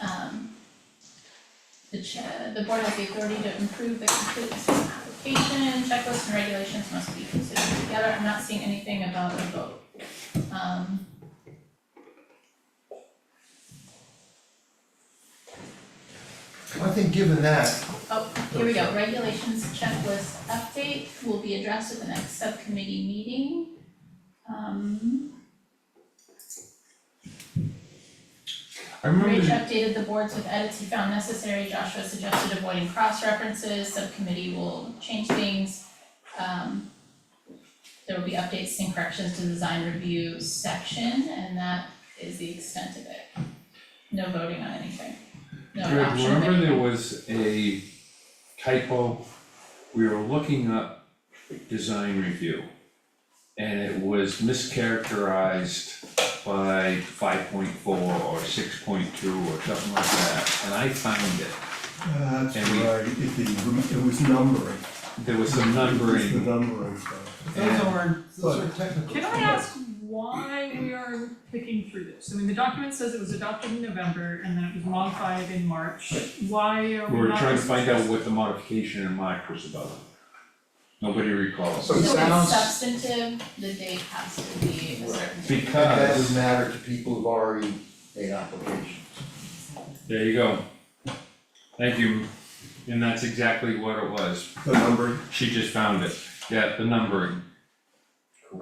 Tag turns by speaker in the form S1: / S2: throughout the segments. S1: Um, The cha- the board has the authority to improve the completeness of an application, checklists and regulations must be considered together, I'm not seeing anything about a vote. Um.
S2: I think given that,
S1: oh, Here we go, regulations checklist update will be addressed at the next subcommittee meeting. Um,
S3: I remember
S1: Rich
S3: the-
S1: updated the boards with edits he found necessary, Joshua suggested avoiding cross references, subcommittee will change things. Um, there will be updates and corrections to the design review section, and that is the extent of it. No voting on anything, no
S3: Greg,
S1: adoption of
S3: remember there
S1: anything.
S3: was a typo, we were looking up design review. And it was mischaracterized by five point four or six point two or something like that, and I found it.
S4: Uh, That's
S3: And we-
S4: right, it, the- it was numbering.
S3: There was some
S4: It's the
S3: numbering,
S4: numbering stuff.
S2: those
S3: Yeah.
S2: are, those are technical.
S5: Can I ask why we are picking through this? I mean, the document says it was adopted in November and then it was modified in March. Why are
S3: we
S5: we
S3: were
S5: not?
S3: trying to find out what the modification in March was about. Nobody recalls,
S2: So- it sounds-
S1: So it's substantive, the date has to be a certain date.
S2: It doesn't
S3: because,
S2: matter to people who've already made applications.
S3: there you go. Thank you, and that's exactly what it was.
S4: The numbering,
S3: She just found it, yeah, the numbering.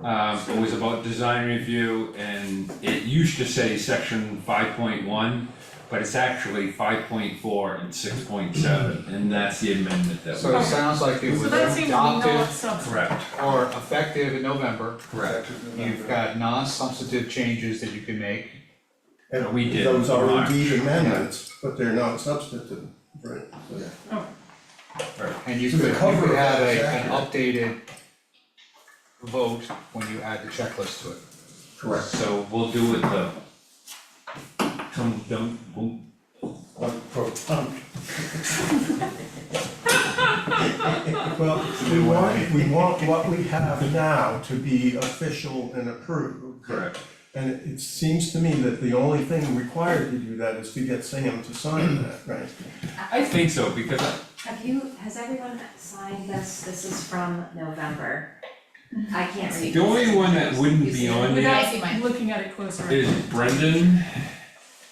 S3: Um, it was about design review and it used to say section five point one, but it's actually five point four and six point seven, and that's the amendment that
S6: So it
S3: was.
S6: sounds like it
S5: So
S6: was
S5: that seems not
S6: adopted
S5: substantive.
S3: Correct,
S6: or effective in November.
S3: correct.
S6: You've got non-substantive changes that you can make.
S4: and
S3: We did
S4: those are
S3: March.
S4: indeed amendments, but they're not substantive, right?
S6: And you
S2: So
S6: could,
S2: the
S6: you
S2: cover
S6: could have
S2: is
S6: a, an
S2: accurate.
S6: updated vote when you add the checklist to it.
S4: Correct.
S3: So we'll do it the. Come, dum, boom,
S4: On pro- um. Well, we want, we want what we have now to be official and approved.
S3: correct.
S4: And it- it seems to me that the only thing required to do that is to get Sam to sign that, right?
S3: I think so, because I-
S7: Have you, has everyone signed this? This is from November. I can't read.
S3: the only one that wouldn't be on there
S1: I see mine.
S5: Without looking at it closer,
S3: is Brendan,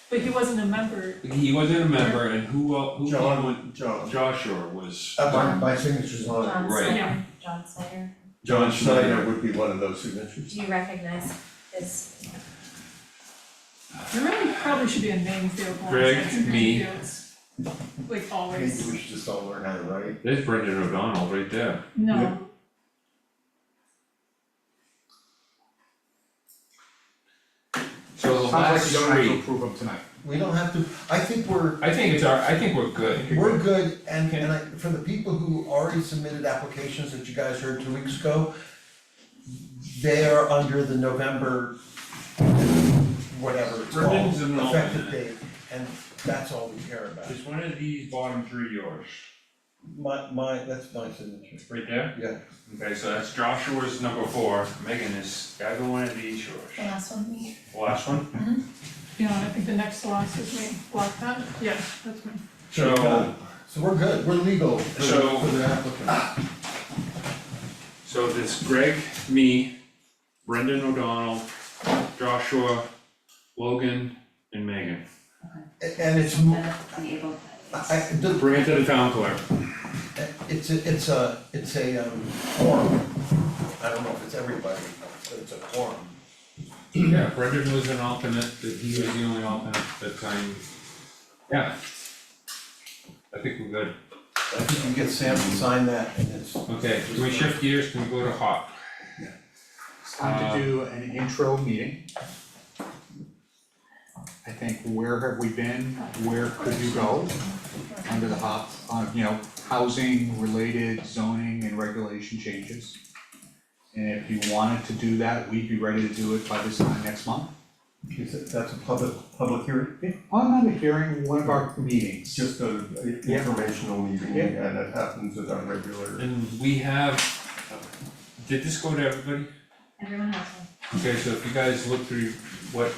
S5: but he wasn't a member.
S3: he wasn't a member, and who, el- who, came
S4: John, John.
S3: with- Joshua was.
S2: Uh, my, my signature's on it.
S7: John
S3: Right.
S7: Slater, John Slater,
S3: John
S4: Schneider
S3: Schneider.
S4: would be one of those signatures.
S7: do you recognize this?
S5: There really probably should be a name field for
S3: Greg,
S5: substantive
S3: me.
S5: fields. Like
S2: Maybe
S5: always,
S2: we should just all learn how to write.
S3: There's Brendan O'Donnell right there.
S4: Yeah.
S5: no,
S3: So the last
S6: Sounds like you don't
S3: three,
S6: have to approve them tonight.
S2: We don't have to, I think we're,
S3: I think it's our, I think we're good.
S2: We're good, and, and I, for the people who already submitted applications that you guys heard two weeks ago, they are under the November, whatever it's called,
S3: Ribbons and all that.
S2: effective date, and that's all we care about.
S3: Is one of these bottom three yours,
S2: My, my, that's my signature.
S3: right there?
S2: Yeah.
S3: Okay, so that's Joshua's number four, Megan is, either one of these
S1: The
S3: yours.
S1: last one, me.
S3: Last one,
S5: you know, I think the next loss is me, block that, yeah, that's me.
S3: so,
S2: So we're good, we're legal for the,
S3: So-
S2: for the applicant.
S3: so this Greg, me, Brendan O'Donnell, Joshua, Logan, and Megan.
S2: A- And it's, m-
S7: The, the able.
S2: I, I- the-
S3: Bring it to the town clerk.
S2: it's, a- it's a, it's a, um, quorum. I don't know if it's everybody, but it's a quorum.
S3: Yeah, Brendan was an alternate, but he was the only alternate at the time. Yeah. I think we're good.
S2: I think you can get Sam to sign that, and it's,
S3: Okay, can we shift gears, can we go to hot?
S6: It's time to do an intro meeting. I think where have we been, where could you go under the hot, uh, you know, housing related zoning and regulation changes. And if you wanted to do that, we'd be ready to do it by this time next month.
S4: Is it, that's a public, public hearing?
S6: On another hearing, one of our meetings.
S4: Just a a
S6: Yeah.
S4: informational meeting,
S6: Yeah.
S4: and it happens at our regular.
S3: And we have, did this go to everybody?
S7: Everyone has one.
S3: Okay, so if you guys look through what